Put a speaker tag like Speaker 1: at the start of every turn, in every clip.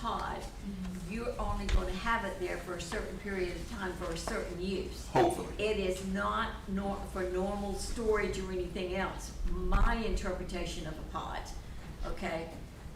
Speaker 1: pod, you're only gonna have it there for a certain period of time for a certain use.
Speaker 2: hopefully.
Speaker 1: It is not nor, for normal storage or anything else, my interpretation of a pod, okay?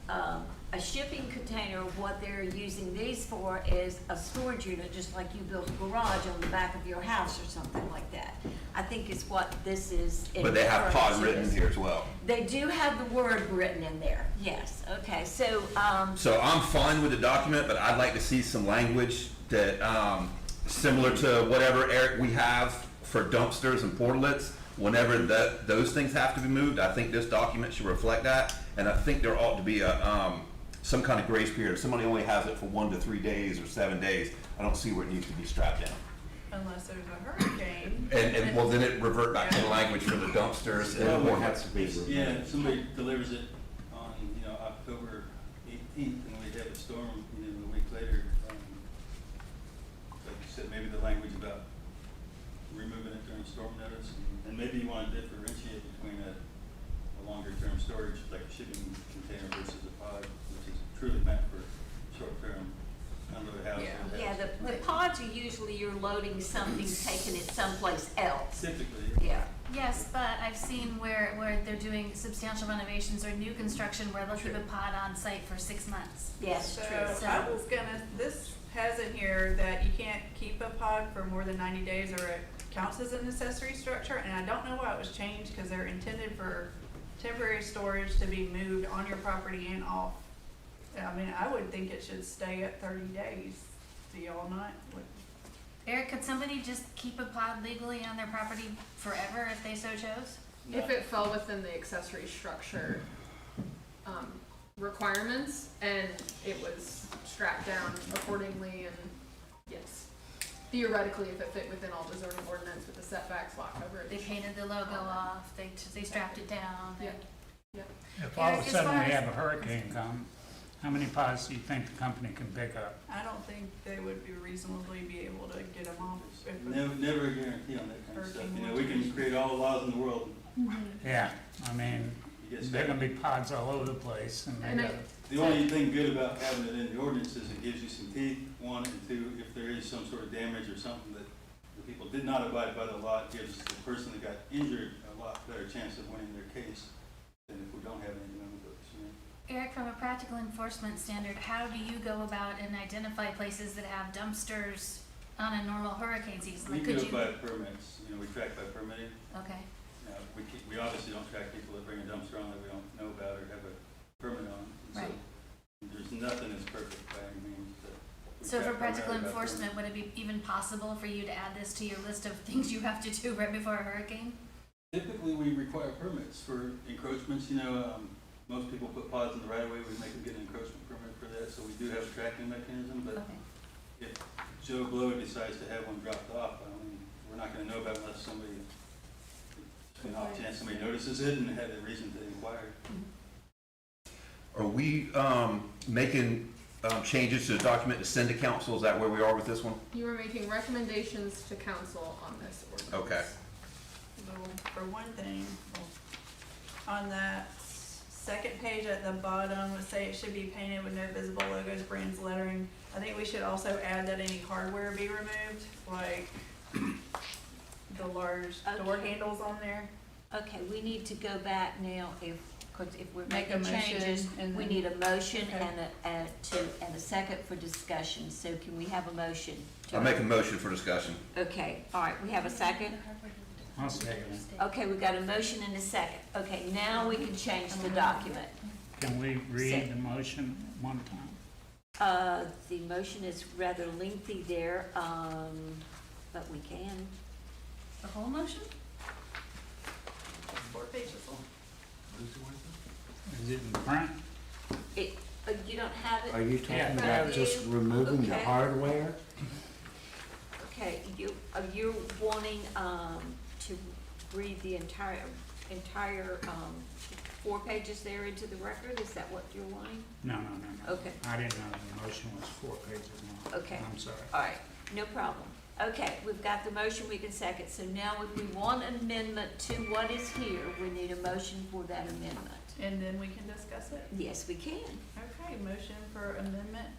Speaker 1: Um, a shipping container, what they're using these for is a storage unit, just like you built a garage on the back of your house or something like that. I think is what this is.
Speaker 2: But they have
Speaker 1: referring
Speaker 2: pod
Speaker 1: to
Speaker 2: written
Speaker 1: as.
Speaker 2: here as well.
Speaker 1: They do have the word written in there, yes, okay, so, um,
Speaker 2: So I'm fine with the document, but I'd like to see some language that, um, similar to whatever Eric, we have for dumpsters and portlets. Whenever that, those things have to be moved, I think this document should reflect that. And I think there ought to be a, um, some kind of grace period. If somebody only has it for one to three days or seven days, I don't see where it needs to be strapped down.
Speaker 3: Unless there's a hurricane.
Speaker 2: And, and, well, then it revert back to the language for the dumpsters and the portlets.
Speaker 4: Yeah, if somebody delivers it on, you know, October eighteenth, and we have a storm, you know, a week later. um, Like you said, maybe the language about removing it during storm notice, and- and maybe you want to differentiate between a, a longer-term storage, like a shipping container versus a pod, which is truly meant for short-term unload house.
Speaker 3: Yeah.
Speaker 1: yeah, the, the pods are usually you're loading something, taking it someplace else,
Speaker 4: Typically,
Speaker 1: yeah.
Speaker 5: Yes, but I've seen where, where they're doing substantial renovations or new construction where they'll keep a pod on site for six months.
Speaker 1: Yes,
Speaker 3: So
Speaker 1: true.
Speaker 3: I was gonna, this has in here that you can't keep a pod for more than ninety days or it counts as an accessory structure, and I don't know why it was changed, cause they're intended for temporary storage to be moved on your property and off. I mean, I would think it should stay at thirty days, do y'all not? What-
Speaker 5: Eric, could somebody just keep a pod legally on their property forever if they so chose?
Speaker 6: If it fell within the accessory structure um, requirements and it was strapped down accordingly and yes. Theoretically, if it fit within all the zoning ordinance with the setbacks, lot
Speaker 5: They
Speaker 6: coverage.
Speaker 5: painted the logo off, they, they strapped it down.
Speaker 6: Yeah.
Speaker 7: If all
Speaker 5: Eric,
Speaker 7: of a
Speaker 5: as
Speaker 7: sudden
Speaker 5: far
Speaker 7: we
Speaker 5: as-
Speaker 7: have a hurricane come, how many pods do you think the company can pick up?
Speaker 3: I don't think they would be reasonably be able to get them off. if-
Speaker 4: never, never a guarantee on that kind of stuff, you know, we can
Speaker 3: Hurricane.
Speaker 4: create all the laws in the world,
Speaker 7: Yeah, I mean,
Speaker 4: you get
Speaker 7: there are
Speaker 4: stuck.
Speaker 7: gonna be pods all over the place and
Speaker 6: And
Speaker 7: they
Speaker 6: I-
Speaker 7: gotta-
Speaker 4: The only thing good about having it in the ordinance is it gives you some teeth, one, and two, if there is some sort of damage or something that the people did not abide by the law, it gives the person that got injured a lot better chance of winning their case than if we don't have anything on the books, you know?
Speaker 5: Eric, from a practical enforcement standard, how do you go about and identify places that have dumpsters on a normal hurricane season?
Speaker 4: We
Speaker 5: Like,
Speaker 4: do
Speaker 5: could
Speaker 4: it
Speaker 5: you?
Speaker 4: by permits, you know, we track by permitting.
Speaker 5: Okay,
Speaker 4: Now, we keep, we obviously don't track people that bring a dumpster on that we don't know about or have a permit on. and so
Speaker 5: Right.
Speaker 4: There's nothing that's perfect by any means, but. we
Speaker 5: so for
Speaker 4: track primarily
Speaker 5: practical
Speaker 4: by permit.
Speaker 5: enforcement, would it be even possible for you to add this to your list of things you have to do right before a hurricane?
Speaker 4: Typically, we require permits for encroachments, you know, um, most people put pods in the right of way, we make them get an encroachment permit for that, so we do have a tracking mechanism, but
Speaker 5: Okay.
Speaker 4: Joe Blow decides to have one dropped off, I mean, we're not gonna know about it unless somebody, an off chance somebody notices it and had a reason to inquire.
Speaker 2: Are we, um, making, um, changes to the document to send to council? Is that where we are with this one?
Speaker 6: You were making recommendations to council on this ordinance.
Speaker 2: Okay.
Speaker 3: Well, for one thing, well, on that s- second page at the bottom, it say it should be painted with no visible logos, brands, lettering. I think we should also add that any hardware be removed, like the large door
Speaker 1: Okay.
Speaker 3: handles on there.
Speaker 1: Okay, we need to go back now if, because if we're
Speaker 3: Make a
Speaker 1: making changes,
Speaker 3: motion and
Speaker 1: we
Speaker 3: then-
Speaker 1: need a motion
Speaker 3: Okay.
Speaker 1: and a, and to, and a second for discussion, so can we have a motion? to-
Speaker 2: I'll make a motion for discussion.
Speaker 1: Okay, all right, we have a second?
Speaker 7: I'll second it.
Speaker 1: Okay, we got a motion and a second. Okay, now we can change the document.
Speaker 7: Can we
Speaker 1: Say-
Speaker 7: read the motion one time?
Speaker 1: Uh, the motion is rather lengthy there, um, but we can.
Speaker 5: The whole motion?
Speaker 3: Four pages long.
Speaker 7: Is it in print?
Speaker 1: It, uh, you don't have
Speaker 8: Are
Speaker 1: it?
Speaker 8: you
Speaker 7: Yeah.
Speaker 8: talking about just removing the
Speaker 1: Okay.
Speaker 8: hardware?
Speaker 1: Okay, you, uh, you're wanting, um, to read the entire, entire, um, four pages there into the record? Is that what you're wanting?
Speaker 7: No, no, no, no.
Speaker 1: Okay.
Speaker 7: I didn't know the motion was four pages long.
Speaker 1: Okay.
Speaker 7: I'm sorry.
Speaker 1: All right, no problem. Okay, we've got the motion, we can second. So now if we want amendment to what is here, we need a motion for that amendment.
Speaker 3: And then we can discuss it.
Speaker 1: Yes, we can.
Speaker 3: Okay, motion for amendment